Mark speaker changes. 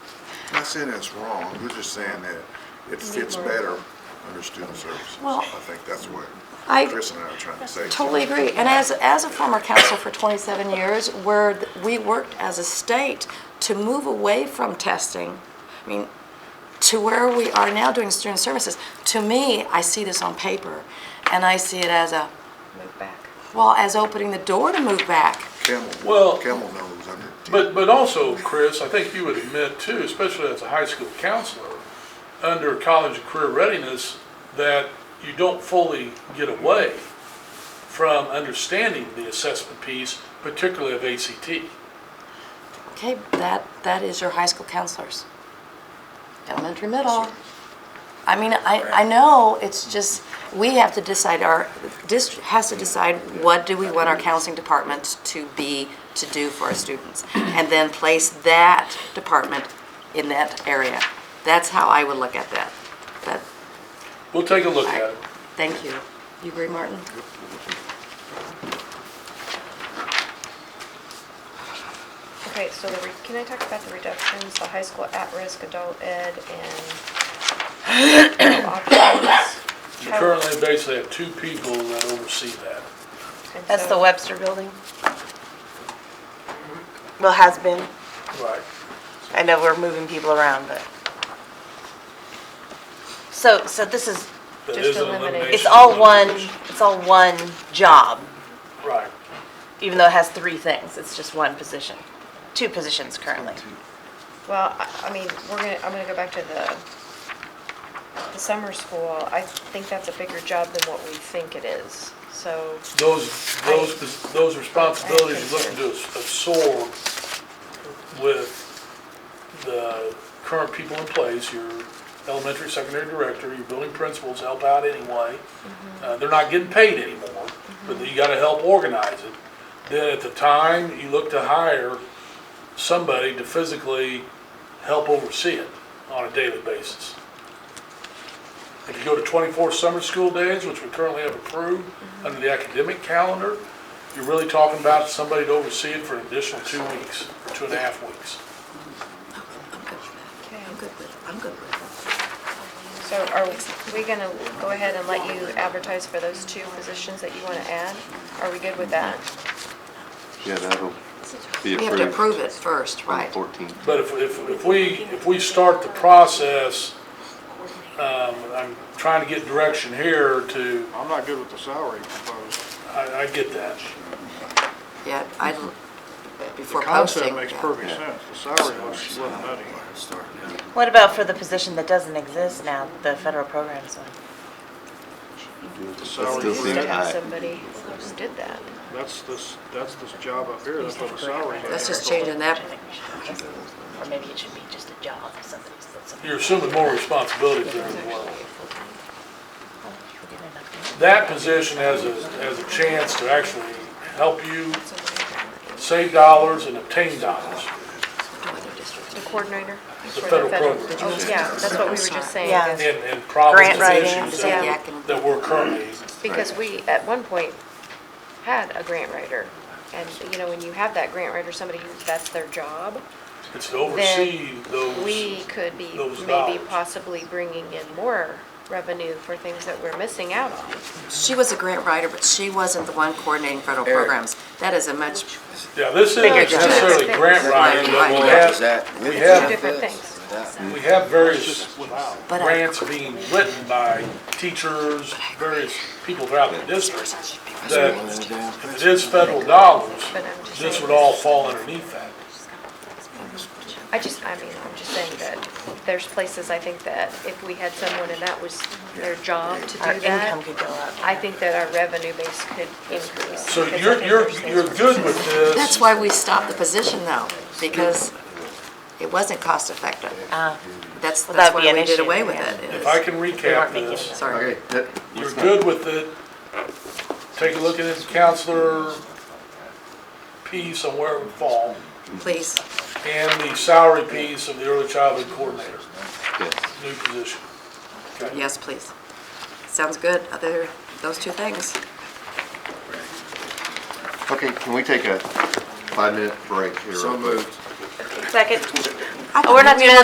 Speaker 1: Not saying it's wrong, we're just saying that it fits better under student services.
Speaker 2: Well,
Speaker 1: I think that's what
Speaker 2: I
Speaker 1: Chris and I are trying to say.
Speaker 2: Totally agree. And as, as a former council for 27 years, where th- we worked as a state to move away from testing, I mean, to where we are now doing student services, to me, I see this on paper, and I see it as a,
Speaker 3: move back.
Speaker 2: well, as opening the door to move back.
Speaker 1: Camel,
Speaker 4: Well-
Speaker 1: Camel knows under. ten.
Speaker 4: But, but also, Chris, I think you would admit too, especially as a high school counselor, under college and career readiness, that you don't fully get away from understanding the assessment piece, particularly of ACT.
Speaker 2: Okay, that, that is your high school counselors. Elementary, middle. I mean, I, I know, it's just, we have to decide, our district has to decide what do we want our counseling department to be, to do for our students? And then place that department in that area. That's how I would look at that. But,
Speaker 4: We'll take a look at
Speaker 2: I,
Speaker 4: it.
Speaker 2: thank you. You agree, Martin?
Speaker 3: Okay, so the, re- can I talk about the reductions, the high school at-risk adult ed and no options?
Speaker 4: You currently basically have two people that oversee that.
Speaker 3: And
Speaker 5: That's
Speaker 3: so-
Speaker 5: the Webster Building? Well, has been.
Speaker 4: Right.
Speaker 5: I know we're moving people around, but. So, so this is,
Speaker 4: That
Speaker 3: Just
Speaker 4: is an
Speaker 3: eliminate.
Speaker 4: elimination.
Speaker 5: it's all one,
Speaker 4: Elimination.
Speaker 5: it's all one job,
Speaker 4: Right.
Speaker 5: even though it has three things. It's just one position, two positions currently.
Speaker 3: Well, I, I mean, we're gonna, I'm gonna go back to the, the summer school. I think that's a bigger job than what we think it is, so.
Speaker 4: Those, those, those responsibilities you're looking to absorb with the current people in place, your elementary, secondary director, your building principals help out anyway. Uh, they're not getting paid anymore, but you gotta help organize it. Then at the time, you look to hire somebody to physically help oversee it on a daily basis. If you go to 24 summer school days, which we currently have approved under the academic calendar, you're really talking about somebody to oversee it for an additional two weeks, or two and a half weeks.
Speaker 3: Okay.
Speaker 2: good with, I'm good with
Speaker 3: So are we gonna go ahead and let you advertise for those two positions that you wanna add? Are we good with that?
Speaker 6: Yeah, that'll be
Speaker 2: We have to
Speaker 6: approved
Speaker 2: approve it first,
Speaker 6: on the
Speaker 2: right?
Speaker 6: 14th.
Speaker 4: But if, if, if we, if we start the process, um, I'm trying to get direction here to,
Speaker 7: I'm not good with the salary proposed.
Speaker 4: I, I get that.
Speaker 2: Yeah, I,
Speaker 7: The
Speaker 2: before posting.
Speaker 7: concept makes
Speaker 2: yeah.
Speaker 7: perfect sense. The salary looks a little nutty.
Speaker 5: What about for the position that doesn't exist now, the federal programs one?
Speaker 7: The
Speaker 6: That
Speaker 7: salary,
Speaker 6: still
Speaker 3: We
Speaker 6: seems
Speaker 3: used to have
Speaker 6: high.
Speaker 3: somebody who did that.
Speaker 7: that's this, that's this job up here, that's what the salary is.
Speaker 2: That's just changing that.
Speaker 5: Or maybe it should be just a job, somebody's, somebody's.
Speaker 4: You're assuming more responsibility there as well. That position has a, has a chance to actually help you save dollars and obtain dollars.
Speaker 3: The coordinator? for The
Speaker 4: federal program.
Speaker 3: Did you Yeah, that's what we were just saying.
Speaker 5: Yeah.
Speaker 3: is
Speaker 4: and, and problems
Speaker 5: Grant
Speaker 4: and
Speaker 5: writing,
Speaker 4: issues
Speaker 2: yeah.
Speaker 4: that, that we're currently,
Speaker 3: Because we, at one point, had a grant writer. And, you know, when you have that grant writer, somebody who, that's their job,
Speaker 4: it's to oversee
Speaker 3: we
Speaker 4: those,
Speaker 3: could be
Speaker 4: Those
Speaker 3: maybe
Speaker 4: dollars.
Speaker 3: possibly bringing in more revenue for things that we're missing out on.
Speaker 2: She was a grant writer, but she wasn't the one coordinating federal programs. That is a much,
Speaker 4: yeah, this isn't
Speaker 2: Bigger jobs.
Speaker 4: necessarily grant writing, but we have, we
Speaker 3: Two
Speaker 4: have,
Speaker 3: different things.
Speaker 4: we have various
Speaker 7: Without.
Speaker 2: but I.
Speaker 4: grants being written by teachers, various people throughout the district, that if it is federal dollars,
Speaker 3: But I'm just
Speaker 4: this
Speaker 3: saying-
Speaker 4: would all fall underneath that.
Speaker 3: I just, I mean, I'm just saying that there's places I think that if we had someone and that was their job to do
Speaker 5: Our income
Speaker 3: that,
Speaker 5: could go up.
Speaker 3: I think that our revenue base could increase.
Speaker 4: So
Speaker 3: because I
Speaker 4: you're,
Speaker 3: think
Speaker 4: you're,
Speaker 3: there's things
Speaker 4: you're
Speaker 3: we're
Speaker 4: good with this.
Speaker 2: That's why we stopped the position though, because it wasn't cost effective. That's,
Speaker 5: Ah. Well,
Speaker 2: that's
Speaker 5: that'd be
Speaker 2: why
Speaker 5: an
Speaker 2: we did
Speaker 5: issue,
Speaker 2: away with
Speaker 5: yeah.
Speaker 2: it.
Speaker 4: If
Speaker 2: is-
Speaker 4: I can recap this,
Speaker 2: Sorry.
Speaker 4: You're good with it. Take a look at his counselor piece on where it would fall,
Speaker 2: Please,
Speaker 4: and the salary piece of the early childhood coordinator,
Speaker 6: Yes.
Speaker 4: new position. Okay.
Speaker 2: yes, please. Sounds good, other, those two things.
Speaker 6: Okay, can we take a five-minute break here?
Speaker 1: So
Speaker 6: real quick?
Speaker 1: moved.
Speaker 5: Second, oh, we're not doing